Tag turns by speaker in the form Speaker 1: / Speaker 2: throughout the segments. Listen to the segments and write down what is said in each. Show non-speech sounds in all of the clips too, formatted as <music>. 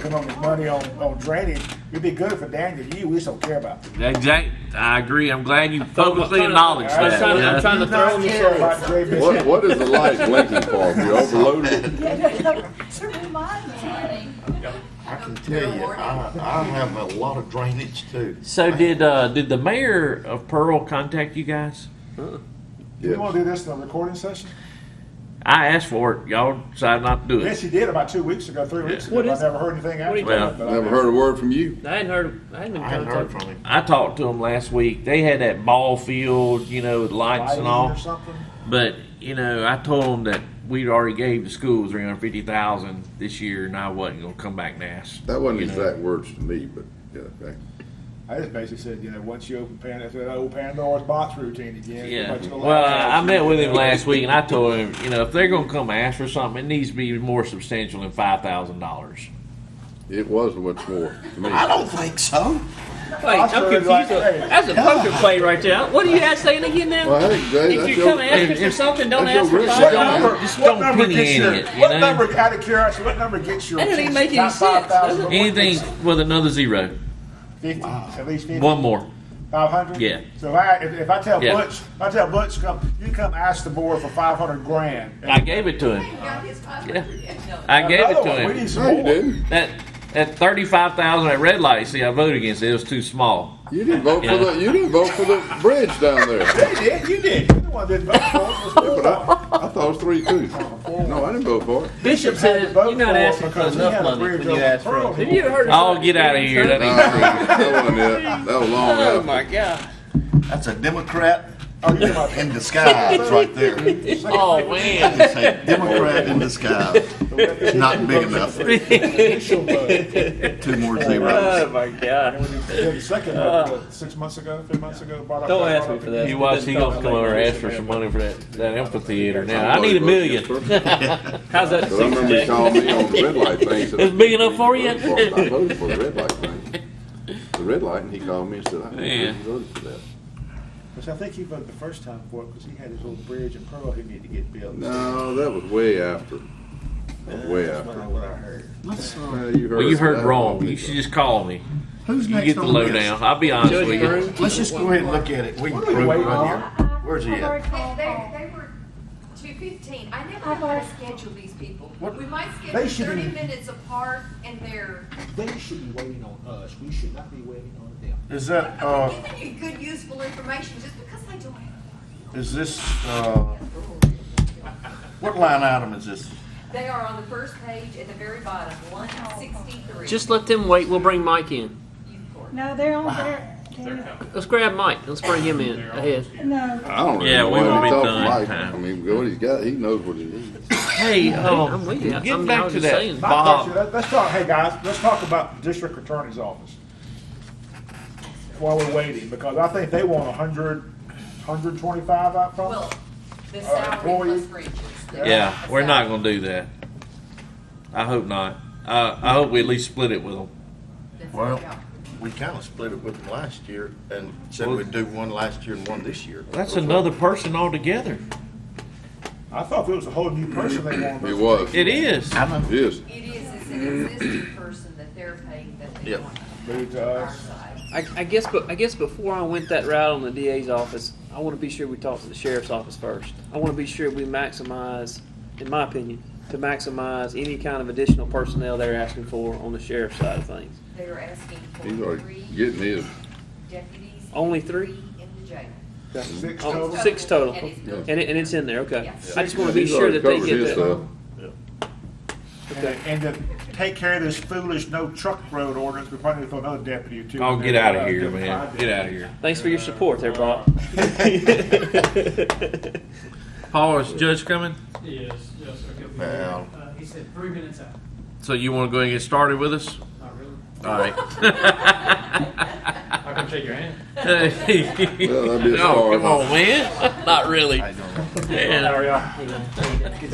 Speaker 1: Come on, this money on, on drainage, it'd be good for Daniel, you, we just don't care about. it.
Speaker 2: Exactly. I agree. I'm glad you
Speaker 3: So I'm
Speaker 2: publicly
Speaker 3: trying to-
Speaker 2: acknowledged
Speaker 3: I'm
Speaker 2: that.
Speaker 3: trying to-
Speaker 2: yeah.
Speaker 3: I'm trying to throw
Speaker 1: Not
Speaker 3: him
Speaker 1: care about
Speaker 3: aside.
Speaker 1: drainage.
Speaker 4: What, what is the light blinking for? If
Speaker 5: <laughs>
Speaker 4: you overloaded?
Speaker 6: To remind me.
Speaker 5: I can tell you, I, I have a lot of drainage too.
Speaker 3: So did uh, did the mayor of Pearl contact you guys?
Speaker 1: You wanna
Speaker 4: Yes.
Speaker 1: do this in a recording session?
Speaker 3: I asked for it. Y'all decided not to do
Speaker 1: Yes,
Speaker 3: it.
Speaker 1: you did about two weeks ago, three weeks ago,
Speaker 7: What
Speaker 1: but I
Speaker 7: is-
Speaker 1: never heard anything after.
Speaker 7: you
Speaker 1: that,
Speaker 3: talking
Speaker 1: but I
Speaker 4: Never
Speaker 1: mean-
Speaker 4: heard a word from you.
Speaker 7: I hadn't heard. I hadn't been
Speaker 5: I haven't heard from
Speaker 7: contacted.
Speaker 5: him.
Speaker 3: I talked to them last week. They had that ball field, you know, with lights and
Speaker 1: Lighting
Speaker 3: all.
Speaker 1: or something?
Speaker 3: But you know, I told them that we'd already gave the school three hundred fifty thousand this year, and I wasn't gonna come back and ask.
Speaker 4: That wasn't
Speaker 3: you know.
Speaker 4: exact words to me, but yeah, okay.
Speaker 1: I just basically said, you know, once you open Pandora's, that old Pandora's box routine again.
Speaker 3: Yeah.
Speaker 1: everybody's gonna
Speaker 3: Well,
Speaker 1: laugh at
Speaker 3: I, I
Speaker 1: you.
Speaker 3: met with him last week, and I told him, you know, if they're gonna come ask for something, it needs to be more substantial than five thousand dollars.
Speaker 4: It was much more to me.
Speaker 7: I don't think so.
Speaker 1: I
Speaker 7: Wait, I'm
Speaker 1: started
Speaker 7: confused.
Speaker 1: like, hey.
Speaker 7: That's a poker play right there. What are you guys saying again now?
Speaker 4: Well, hey, Jay,
Speaker 7: if
Speaker 4: that's
Speaker 7: you
Speaker 4: your-
Speaker 7: come asking
Speaker 3: if-
Speaker 7: for something, don't
Speaker 4: that's your
Speaker 7: ask for
Speaker 4: risk.
Speaker 7: five
Speaker 1: What
Speaker 4: Yeah.
Speaker 3: Don't-
Speaker 1: number,
Speaker 7: dollars.
Speaker 3: just
Speaker 1: what
Speaker 3: don't
Speaker 1: number
Speaker 3: penny
Speaker 1: gets
Speaker 3: in
Speaker 1: your,
Speaker 3: it, you
Speaker 1: what
Speaker 3: know?
Speaker 1: number, out of curiosity, what number gets your
Speaker 7: That doesn't
Speaker 1: attention?
Speaker 7: even make any
Speaker 1: Not
Speaker 7: sense, does
Speaker 1: 5,000,
Speaker 7: it?
Speaker 3: Anything with another zero,
Speaker 1: 50, at least 50?
Speaker 3: one more.
Speaker 1: 500?
Speaker 3: Yeah.
Speaker 1: So if I, if, if I tell
Speaker 3: Yeah.
Speaker 1: Butch, if I tell Butch, come, you come ask the board for 500 grand.
Speaker 3: I gave it to him.
Speaker 6: Got his five
Speaker 3: Yeah.
Speaker 6: hundred. Yeah.
Speaker 3: I gave it
Speaker 1: Another
Speaker 3: to
Speaker 1: one, We
Speaker 3: him.
Speaker 1: need some
Speaker 4: No, you
Speaker 1: more.
Speaker 4: didn't.
Speaker 3: That that thirty five thousand at red light. See, I voted against it. It was too small.
Speaker 4: You didn't vote for the, you didn't vote for the bridge down there.
Speaker 1: They did, you did. You're the one that voted for it. It
Speaker 4: But
Speaker 1: was
Speaker 7: <laughs>
Speaker 4: I, I thought it was three, two. No, I didn't vote for it.
Speaker 7: Bishop
Speaker 1: Bishop had
Speaker 7: said
Speaker 1: to vote
Speaker 7: you're not
Speaker 1: for it
Speaker 7: asking for
Speaker 1: because he had
Speaker 7: enough
Speaker 1: a
Speaker 7: money
Speaker 1: bridge
Speaker 7: when you
Speaker 1: over
Speaker 7: ask
Speaker 1: Pearl.
Speaker 7: for it. Have
Speaker 1: <laughs>
Speaker 7: you ever heard of
Speaker 3: Oh,
Speaker 7: something
Speaker 3: get out of
Speaker 7: like
Speaker 3: here. That
Speaker 4: No,
Speaker 3: ain't true.
Speaker 4: That wasn't it. That was long
Speaker 7: Oh
Speaker 4: after.
Speaker 7: my God.
Speaker 5: That's a Democrat
Speaker 1: Oh, you're my-
Speaker 5: in disguise right there. You
Speaker 3: Oh man.
Speaker 5: can say Democrat in disguise. Not big enough.
Speaker 1: Initial vote.
Speaker 5: Two more zeros.
Speaker 7: Oh, my God.
Speaker 1: Yeah, the second vote, uh, six months ago, three months ago. brought up-
Speaker 7: Don't
Speaker 1: brought
Speaker 7: ask
Speaker 1: up
Speaker 7: me for
Speaker 1: the-
Speaker 7: that.
Speaker 3: You watch, he gonna come over and ask for some money for that, that amphitheater now. I need a million.
Speaker 7: How's that?
Speaker 4: But I remember he called me on the red light
Speaker 3: <laughs>
Speaker 4: thing. said,
Speaker 3: It's big enough for you?
Speaker 4: I voted for the red light thing. The red light, and he called me and said, I
Speaker 3: Man.
Speaker 4: voted for that.
Speaker 1: Which I think he voted the first time for it because he had his little bridge in Pearl he needed to get built.
Speaker 4: No, that was way after. That was Way
Speaker 1: That's
Speaker 4: after.
Speaker 1: not what I heard.
Speaker 4: Well, you heard,
Speaker 3: Well, you heard
Speaker 4: that.
Speaker 3: wrong. You should just call me.
Speaker 5: Who's
Speaker 3: You get the lowdown. I'll be honest with you.
Speaker 5: Let's just go ahead and look at it. We can prove it right here. Where's he at?
Speaker 6: They, they, they were two fifteen. I never know how to schedule these people.
Speaker 1: What?
Speaker 6: We might
Speaker 1: They
Speaker 6: schedule
Speaker 1: should
Speaker 6: thirty
Speaker 1: be-
Speaker 6: minutes apart and they're
Speaker 8: They should be waiting on us. We should not be waiting on them.
Speaker 5: Is that,
Speaker 1: Oh.
Speaker 5: uh,
Speaker 6: giving you good, useful information just because they don't have.
Speaker 5: is this, uh, what line item is this?
Speaker 6: it. They are on the first page at the very bottom, one sixty-three.
Speaker 7: Just let them wait. We'll bring Mike in.
Speaker 9: No, they're on there. they're-
Speaker 7: Let's grab Mike. Let's bring him in ahead.
Speaker 9: No,
Speaker 4: I don't really
Speaker 3: Yeah,
Speaker 4: know
Speaker 3: we
Speaker 4: why
Speaker 3: won't be
Speaker 4: he talked
Speaker 3: done in
Speaker 4: Mike. I
Speaker 3: time.
Speaker 4: mean, what he's got, he knows what he needs.
Speaker 3: Hey,
Speaker 7: I'm
Speaker 3: um,
Speaker 7: with you. I'm-
Speaker 3: getting
Speaker 7: I
Speaker 3: back
Speaker 7: was
Speaker 3: to
Speaker 7: just
Speaker 3: that
Speaker 7: saying.
Speaker 3: Bob.
Speaker 1: Let's, let's talk, hey guys, let's talk about the district attorney's office while we're waiting, because I think they want a hundred, hundred twenty-five out from
Speaker 6: Well,
Speaker 1: us.
Speaker 6: the
Speaker 1: All right,
Speaker 6: salary
Speaker 1: employee.
Speaker 6: plus fringes.
Speaker 3: Yeah, we're not gonna do that. I hope not. Uh, I hope we at least split it with them.
Speaker 6: That's-
Speaker 5: Well,
Speaker 6: yeah.
Speaker 5: we kind of split it with them last year and said we'd do one last year and one this year.
Speaker 3: That's another person altogether.
Speaker 1: I thought it was a whole new person they wanted.
Speaker 4: He was.
Speaker 3: It is.
Speaker 5: I know.
Speaker 4: He is.
Speaker 6: It is, it's an existing person that they're paying that they
Speaker 5: Yep.
Speaker 6: want
Speaker 1: Moved to
Speaker 6: on our
Speaker 1: us.
Speaker 6: side.
Speaker 7: I, I guess, but I guess before I went that route on the DA's office, I want to be sure we talk to the sheriff's office first. I want to be sure we maximize, in my opinion, to maximize any kind of additional personnel they're asking for on the sheriff's side of things.
Speaker 6: They are asking
Speaker 4: He's
Speaker 6: for
Speaker 4: already
Speaker 6: three
Speaker 4: getting his.
Speaker 6: deputies.
Speaker 7: Only three?
Speaker 6: In the jail.
Speaker 1: Six
Speaker 7: Oh,
Speaker 1: total.
Speaker 7: six total.
Speaker 6: And it's built
Speaker 7: And it, and it's in there, okay.
Speaker 6: Yes.
Speaker 7: I just want to be sure that they get that.
Speaker 1: And, and to take care of this foolish no truck road ordinance, we probably need to throw another deputy or two.
Speaker 3: Oh,
Speaker 1: in
Speaker 3: get
Speaker 1: there.
Speaker 3: out
Speaker 1: Uh,
Speaker 3: of here,
Speaker 1: get
Speaker 3: man.
Speaker 1: five
Speaker 3: Get out of here.
Speaker 7: Thanks for your support there, <laughs> Bob.
Speaker 3: Paul, is Judge coming?
Speaker 10: Yes, yes, sir. He'll be
Speaker 5: Well.
Speaker 10: there. Uh, He said three minutes out.
Speaker 3: So you wanna go ahead and get started with us?
Speaker 10: Not really.
Speaker 3: All <laughs> right.
Speaker 10: I can shake your hand.
Speaker 3: Hey.
Speaker 4: Well, that'd be a
Speaker 3: no,
Speaker 4: start.
Speaker 3: come on, man. Not really.
Speaker 10: How
Speaker 3: Yeah.
Speaker 10: are
Speaker 1: uh,
Speaker 10: y'all? Good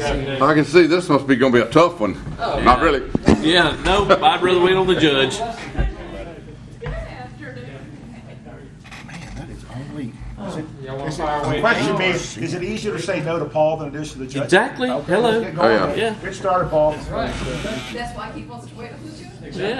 Speaker 10: afternoon.
Speaker 4: I can see this must be gonna be a tough one.
Speaker 3: Oh,
Speaker 4: Not really.
Speaker 3: yeah, no, I'd rather wait on the judge.
Speaker 5: Man, that is only.
Speaker 10: Y'all want to fire
Speaker 1: The
Speaker 10: away?
Speaker 1: question is, is it easier to say no to Paul than it is to the judge?
Speaker 3: Exactly.
Speaker 1: Okay,
Speaker 3: Hello.
Speaker 1: let's get going.
Speaker 4: Oh, yeah.
Speaker 3: Yeah.
Speaker 1: Get started, Paul.
Speaker 6: That's why he wants to wait on the jail.
Speaker 10: Exactly.